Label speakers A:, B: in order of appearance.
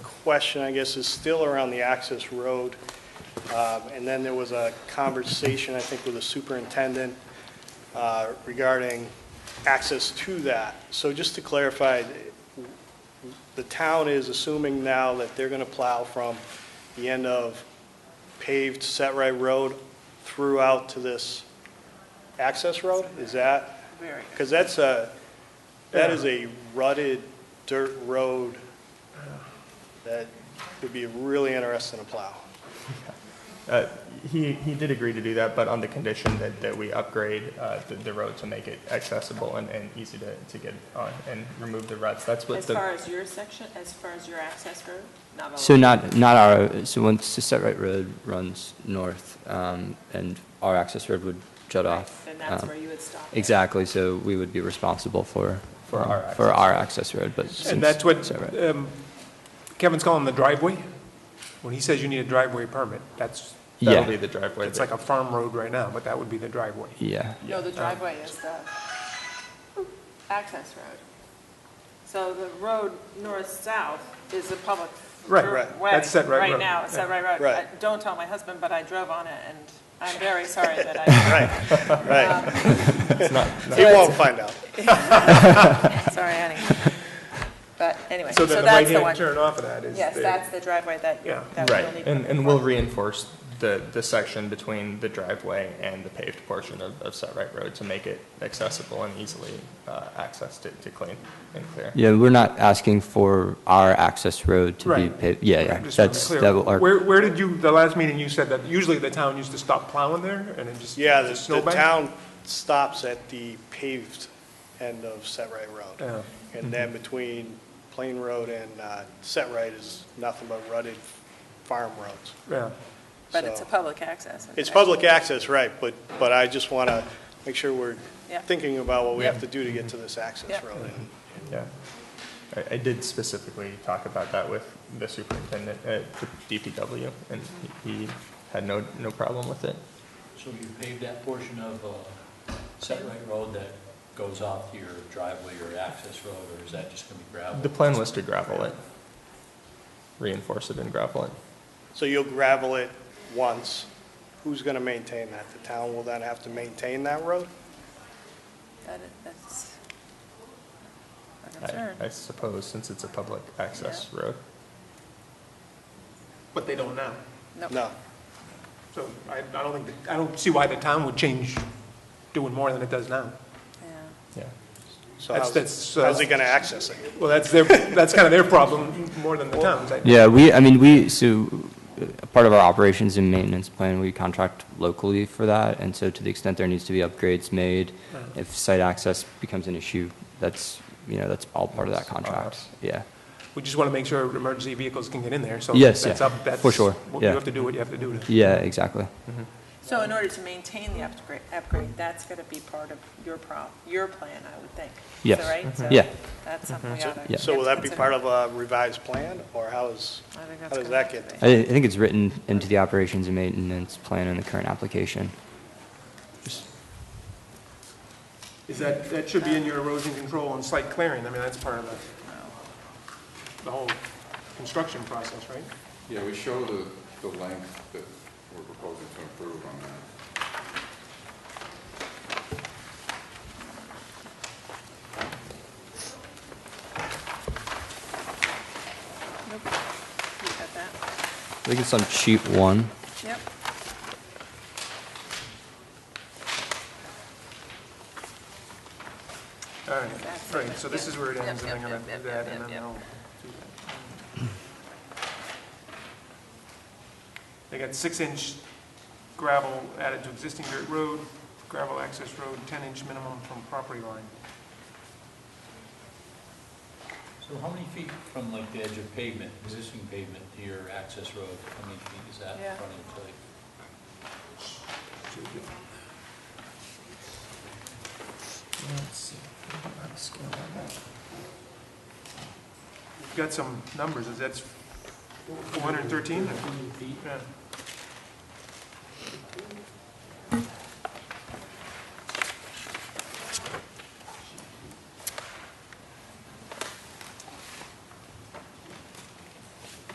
A: question, I guess, is still around the access road. Um, And then there was a conversation, I think, with the superintendent uh, regarding access to that. So just to clarify, the town is assuming now that they're going to plow from the end of paved Set Right Road throughout to this access road? Is that,
B: Very.
A: because that's a, that is a rutted dirt road that would be really interesting to plow.
C: Uh, He, he did agree to do that, but on the condition that, that we upgrade uh, the, the road to make it accessible and, and easy to, to get on and remove the ruts. That's what
B: As far
C: the,
B: as your section, as far as your access road? not all
D: So
B: of it.
D: not, not our, so once the Set Right Road runs north, um, and our access road would jut off.
B: Then that's
D: um,
B: where you would
C: Uh,
B: stop. it.
D: Exactly, so we would be responsible for.
C: For our
D: um, For our access road, but since.
E: And that's what
D: Set Right-
E: um, Kevin's calling the driveway. When he says you need a driveway permit, that's,
C: that'll
D: Yeah.
C: be the driveway.
E: it's
C: that-
E: like a farm road right now, but that would be the driveway.
D: Yeah,
B: No, the driveway is the access road. So the road north-south is a public
E: Right,
B: dri-
A: right.
B: way.
E: That's Set Right Road.
B: now, it's Set Right Road.
A: Right.
B: I- Don't tell my husband, but I drove on it, and I'm very sorry that I,
A: Right. He
B: Yes.
A: won't find out.
B: sorry, Annie. But anyway,
E: So
B: so
E: then the
B: that's the one.
E: right-hand turn off of that is.
B: Yes,
E: the-
B: that's the driveway that,
E: Yeah.
B: that
C: Right,
B: we'll need.
C: and, and we'll reinforce the, the section between the driveway and the paved portion of, of Set Right Road to make it accessible and easily uh, accessed to, to clean and clear.
D: yeah, we're not asking for our access road to be
E: Right.
D: paved, yeah,
E: Right,
D: yeah,
E: just
D: that's,
E: to be
D: that
E: clear.
D: will, our-
E: Where, where did you, the last meeting you said that usually the town used to stop plowing there and it just.
A: Yeah,
E: just
A: the- the
E: snowbank?
A: town stops at the paved end of Set Right Road.
E: Yeah.
A: And then between Plain Road and uh, Set Right is nothing but rutted farm roads.
E: Yeah,
B: But it's a
A: So-
B: public access.
A: It's public access, right, but, but I just want to make sure we're
B: Yeah.
A: thinking about what we have to do to get to this access
B: Yeah.
A: road. And
C: Yeah. I, I did specifically talk about that with the superintendent at the DPW, and he he had no, no problem with it.
F: So you pave that portion of uh, Set Right Road that goes off your driveway or access road, or is that just going to be gravel?
C: The plan was to gravel it, reinforce it and gravel it.
A: So you'll gravel it once. Who's going to maintain that? The town will then have to maintain that road?
B: That is- That's a concern.
C: I- I suppose, since it's a public access road.
E: but they don't now.
B: Nope.
A: No.
E: So I, I don't think, that- I don't see why the town would change doing more than it does now.
B: Yeah.
C: Yeah.
A: So
E: That's-
A: how's,
E: that's, uh,
A: how's it going to access it?
E: Well, that's their, that's kind of their problem more than the town's. I-
D: yeah, we, I mean, we, so, uh, part of our operations and maintenance plan, we contract locally for that, and so to the extent there needs to be upgrades made, if site access becomes an issue, that's, you know, that's all part of that
C: That's on
D: contract,
C: us.
D: yeah.
E: We just want to make sure emergency vehicles can get in there, so.
D: Yes,
E: that's
D: yeah,
E: up- that's-
D: for sure,
E: what-
D: yeah.
E: You have to do what you have to do to.
D: Yeah, exactly.
B: So in order to maintain the upgrade, upgrade, that's gonna be part of your pro, your plan, I would think. Is
D: Yes.
B: that right? So
D: Yeah.
B: That's something
A: Mm-hmm.
B: we ought to.
D: Yeah.
A: So will that be part of a revised plan, or how is,
B: I think
A: how
B: that's
A: does
B: gonna
A: that
B: have
A: get?
B: to
A: there?
D: I, I think it's written into the operations and maintenance plan in the current application.
E: Is that, that should be in your erosion control and site clearing, I mean, that's part of the, the whole construction process, right?
G: Yeah, we show the, the length that we're proposing to improve on that.
B: Nope. You got that?
D: I think it's on sheet one.
B: Yep.
E: All right,
B: That's
E: right,
B: it.
E: so this
B: Yep.
E: is where it
B: Yep,
E: ends, and I'm
B: yep,
E: gonna
B: yep,
E: do
B: yep,
E: that,
B: yep,
E: and then
B: yep.
E: I'll do that. They got six-inch gravel added to existing dirt road, gravel access road, ten-inch minimum from property line.
F: So how many feet from like the edge of pavement, existing pavement to your access road, how many feet is that
B: Yeah.
F: in front of the site?
E: You've got some numbers, is that's four hundred and thirteen?
F: feet.
E: Yeah.